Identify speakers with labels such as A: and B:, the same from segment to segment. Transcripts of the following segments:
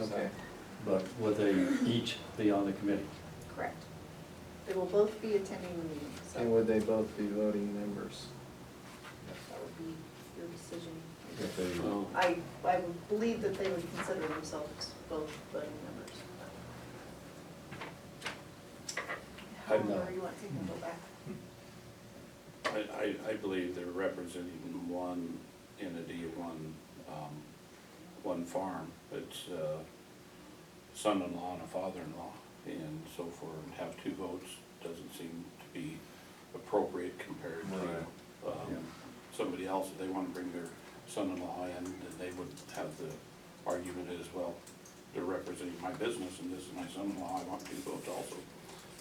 A: Okay.
B: but will they each be on the committee?
C: Correct. They will both be attending the meeting, so
A: And would they both be voting members?
C: that would be your decision.
B: If they-
D: Well,
C: I, I would believe that they would consider themselves both voting members.
B: I'm
C: However
B: not.
C: you want to go back.
D: I, I, I believe they're representing one entity, one, um, one farm. It's, uh, son-in-law and a father-in-law, and so for have two votes doesn't seem to be appropriate compared
A: Right.
D: to,
B: Yeah.
D: um, somebody else, if they wanna bring their son-in-law in, then they would have the argument as well. They're representing my business and this is my son-in-law, I want two votes also.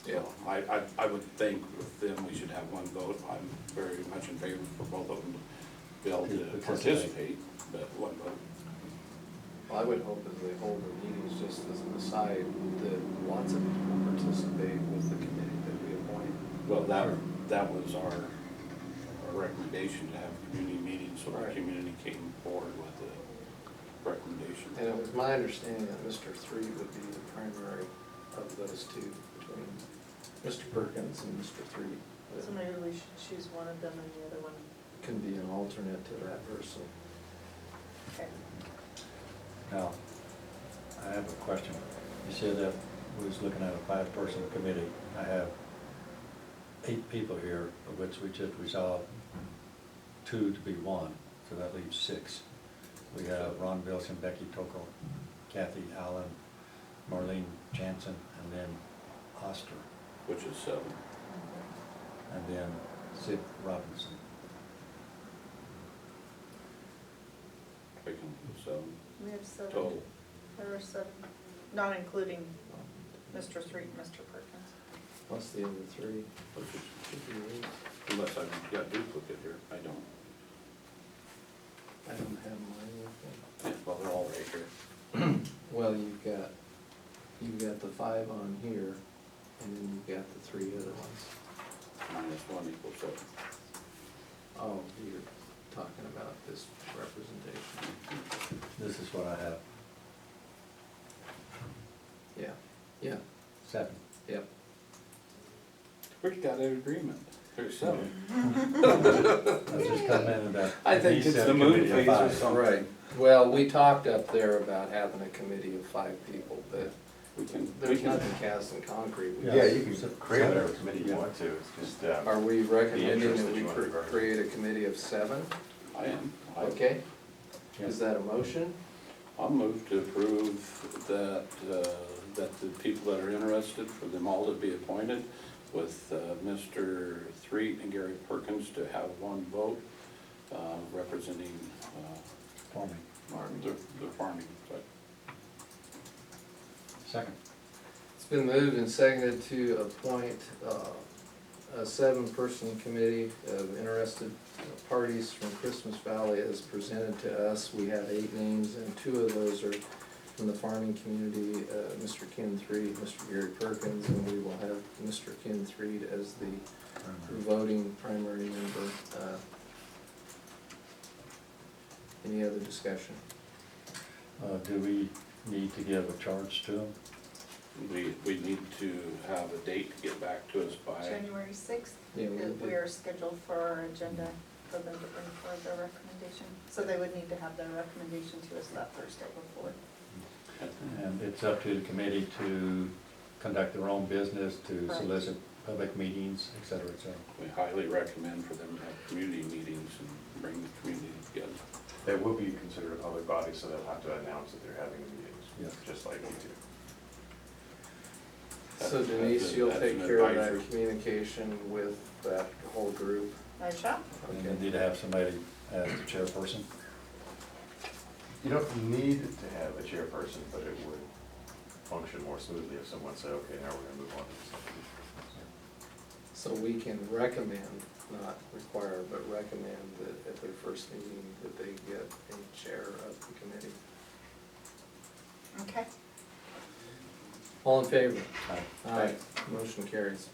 A: Yeah.
D: So I, I, I would think with them, we should have one vote, I'm very much in favor for both of them to be able to
B: Participate.
D: participate, but one vote.
A: Well, I would hope as they hold the meetings, just as an aside, that lots of people participate with the committee that we appoint.
D: Well, that,
B: Sure.
D: that was our, our recommendation to have community meetings, so the
A: Right.
D: community came forward with a
A: And
D: recommendation.
A: it was my understanding that Mr. Three would be the primary of those two, between Mr. Perkins and Mr. Three.
B: Mm-hmm.
C: So
A: that
C: maybe we should choose one of them and the other one.
A: Can be an alternate to that person.
C: Okay.
B: Now, I have a question. You said that we was looking at a five-person committee. I have eight people here, of which we just resolved two to be one, so that leaves six. We have Ron Wilson, Becky Tokol, Kathy Allen, Marlene Jansen, and then Oster,
D: Which is seven.
B: and then Sid Robinson.
D: Picking seven
C: We have seven.
D: total.
C: There are seven, not including Mr. Street, and Mr. Perkins.
A: Plus the other three.
D: which is-
A: Should be eight.
D: Unless I've got duplicate here, I don't.
A: I don't have mine with
D: Yeah, Well, they're all right here.
A: me. Well, you've got, you've got the five on here, and then you've got the three other ones.
D: Minus one equals seven.
A: Oh, you're talking about this representation.
B: This is what I have,
A: Yeah, yeah,
B: seven.
A: yep.
D: We've got an agreement. There's seven.
B: I just commented that.
A: I think
B: uh, he
A: it's
B: said
D: the moon
B: committee of
D: phase or
B: five.
D: something.
A: Right, well, we talked up there about having a committee of five people, but
D: We can, we
A: there's
D: can,
A: nothing cast in concrete. We-
E: Yeah,
B: Yes.
E: you can create whatever committee you want to, it's just, um,
A: Are we recommending
E: interest
A: that
E: that
A: we
E: you wanna
A: cre-
E: grow.
A: create a committee of seven?
D: I am. I-
A: Okay,
B: Yeah.
A: is that a motion?
D: I'll move to approve that, uh, that the people that are interested, for them all to be appointed, with uh, Mr. Threet and Gary Perkins to have one vote uh, representing uh,
B: Farming.
D: the the farming. side.
B: Second.
A: It's been moved and seconded to appoint uh, a seven-person committee of interested parties from Christmas Valley as presented to us. We have eight names, and two of those are from the farming community, uh, Mr. Ken Threed, Mr. Gary Perkins, and we will have Mr. Ken Threed as the
B: Mm-hmm.
A: voting primary member. Uh, Any other discussion?
B: Uh, do we need to give a charge to them?
D: We, we need to have a date to get back to us by,
C: January sixth,
A: Yeah, we did.
C: we are scheduled for our agenda for them to bring forward their recommendation. So they would need to have their recommendation to us that Thursday before.
B: And it's up to the committee to conduct their own business, to
C: Right.
B: solicit public meetings, et cetera, et cetera.
D: we highly recommend for them to have community meetings and bring the community together.
E: they will be considered a public body, so they'll have to announce that they're having
B: Yeah.
E: meetings, just like we do.
A: So Denise, you'll
D: That's an
A: take care of
D: advisory.
A: that communication with that whole group?
C: I shall.
B: And you
A: Okay.
B: need to have somebody as the chairperson.
E: You don't need to have a chairperson, but it would function more smoothly if someone said, okay, now we're gonna move on to this.
A: So we can recommend, not require, but recommend that at their first meeting, that they get a chair of the committee.
C: Okay.
A: All in favor?
B: Aye.
A: Aye. Motion carries.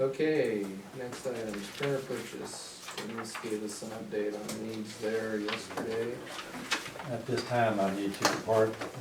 A: Okay, next item is printer purchase. Denise gave us an update on needs there yesterday.
B: At this time, I need to depart